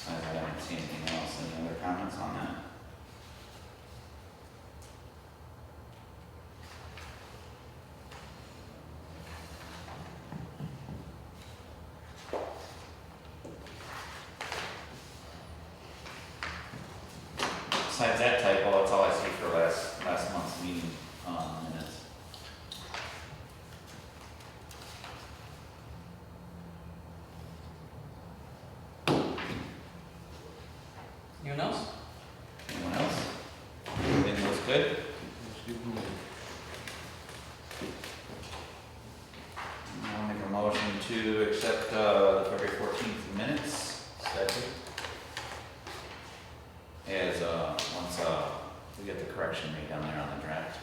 see anything else, any other comments on that? Besides that typo, that's all I see for last, last month's meeting, um, minutes. Anyone else? Anyone else? Everything looks good? I'll make a motion to accept, uh, the February fourteenth minutes. Second. As, uh, once, uh, we get the correction made down there on the draft.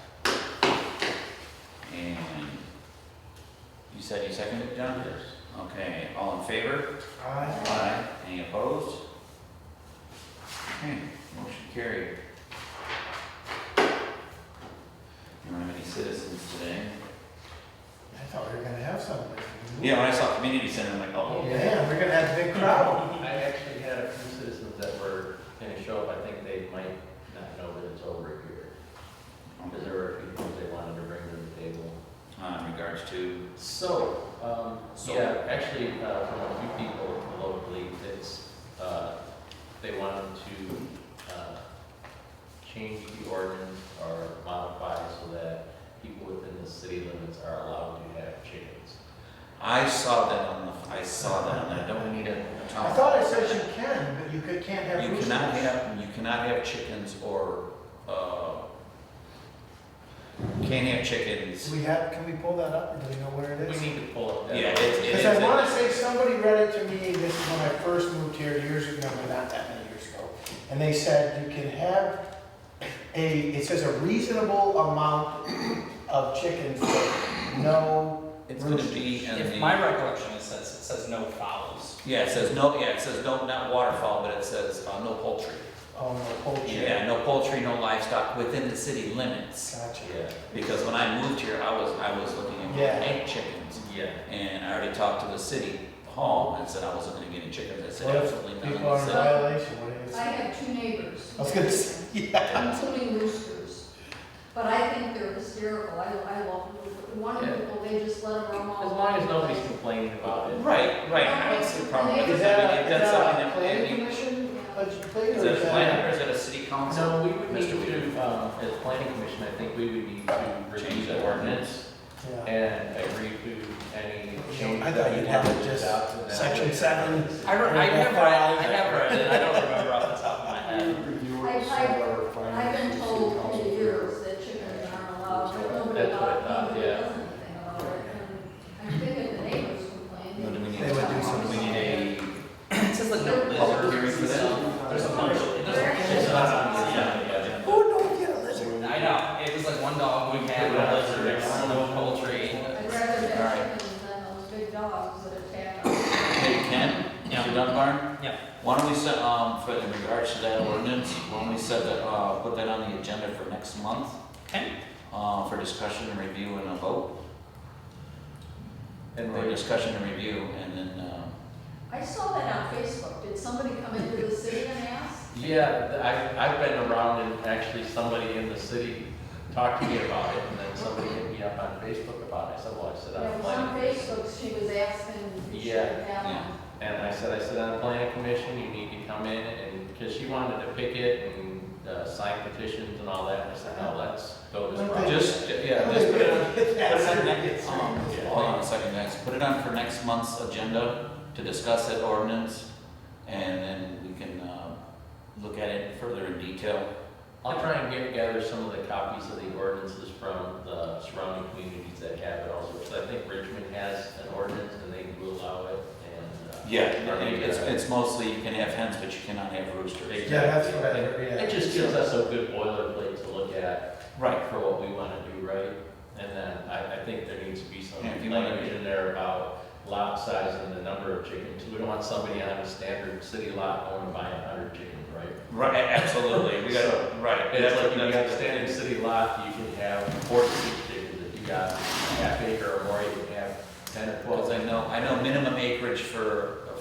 And you said you seconded it, John? Yes. Okay, all in favor? Aye. Any opposed? Okay, motion carried. We don't have any citizens today. I thought we were gonna have something. Yeah, when I saw community center, I'm like, oh, Yeah, we're gonna have a big crowd. I actually had a few citizens that were gonna show up, I think they might not know that it's over here. Because there were a few things they wanted to bring to the table. uh, in regards to, So, um, So- yeah, actually, uh, from a few people locally, it's, uh, they wanted to, uh, change the ordinance or modify so that people within the city limits are allowed to have chickens. I saw that on the, I saw that on that, don't we need a? I thought it says you can, but you could, can't have You roosters. cannot have, you cannot have chickens or, uh, can't have chickens. Do we have, can we pull that up, or do we know where it We is? need to pull up that. Yeah, it's- it Because is- I wanna say somebody read it to me, this is when I first moved here years ago, no, not that many years ago. And they said you can have a, it says a reasonable amount of chickens, but no, It's gonna be in If the- my recollection is says, it says no fouls. Yeah, it says no, yeah, it says no, not waterfowl, but it says, uh, no poultry. oh, no poultry. Yeah, no poultry, no livestock within the city limits. Gotcha. Yeah, Because when I moved here, I was, I was looking Yeah. at eight chickens. yeah. And I already talked to the city hall and said I wasn't gonna get any chickens. I said What if absolutely not. People are in So- violation, what is I have two neighbors. I was gonna say, yeah. Including roosters. But I think they're hysterical. I, I love them. One of Yeah. people, they just let them roam all As over. long as the nobody's place. complaining about it. Right, right. I don't see a problem with it. Is that, I mean, a- if is that's that something a that- planning commission, Yeah. legislative, Is or that a is plan or that? is that a city council? No, we would need Mr. Weaver. to, um, as planning commission, I think we would need to Change review the the ordinance Yeah. and agree to any I changes thought that you'd you have want it to just adopt. and then- section seven. I, re- I never, I never, Right, and I don't remember off the top of my head. I've been told for years that chickens aren't allowed, but nobody That's what I thought, bought, nobody yeah. does anything about it. And I'm thinking the neighbors No, do complain. we need, They would do do we something. need a it says like no public lizards. hearing for that? There's a bunch of, it doesn't, Where? it's not on the Yeah, agenda. yeah. Oh, no, get a lizard. I know, it was like one dog, one cat, one lizard, no poultry. I'd rather Alright. have chickens than those big dogs that attack. us. Hey, Ken, Yeah. Mr. Dunbar? Yeah. Why don't we set, um, for, in regards to that ordinance, why don't we set that, uh, put that on the agenda for next month? Okay. Uh, for discussion and review and a vote, And or they discussion and review, and then, um, I saw that on Facebook. Did somebody come into the city and ask? Yeah, th- I've, I've been around and actually somebody in the city talked to me about it and then somebody hit me up on Facebook about it. I said, well, I said, Yeah, I'm it was on planning. Facebook, she was asking. if she Yeah, had them. yeah. And I said, I said, on the planning commission, you need to come in and, because she wanted to picket and uh, sign petitions and all that. And I said, no, let's go this Okay. route. just, yeah, just put it on, Um, Hold on a second, guys, put it on for next month's agenda to discuss that ordinance, and then we can, uh, look at it further in detail. I'll try and get, gather some of the copies of the ordinances from the surrounding communities that have it also. Because I think Richmond has an ordinance and they do allow it and. uh, Yeah, or maybe it's, I- it's mostly, you can have hens, but you cannot have roosters. Yeah, that's what I heard, yeah. It just gives us a good boilerplate to look at Right, for what we want to do right. And then I, I think there needs to be some Yeah, if you wanna- language in there about lot size and the number of chickens. We don't want somebody on a standard city lot going to buy a hundred chickens, right? Right, a- absolutely, we gotta, right. It's that's- like if you got a that's- standard city lot, you can have forty-six chickens. If you got a half acre or more, you can have ten or Well, twelve. I know, I know minimum acreage for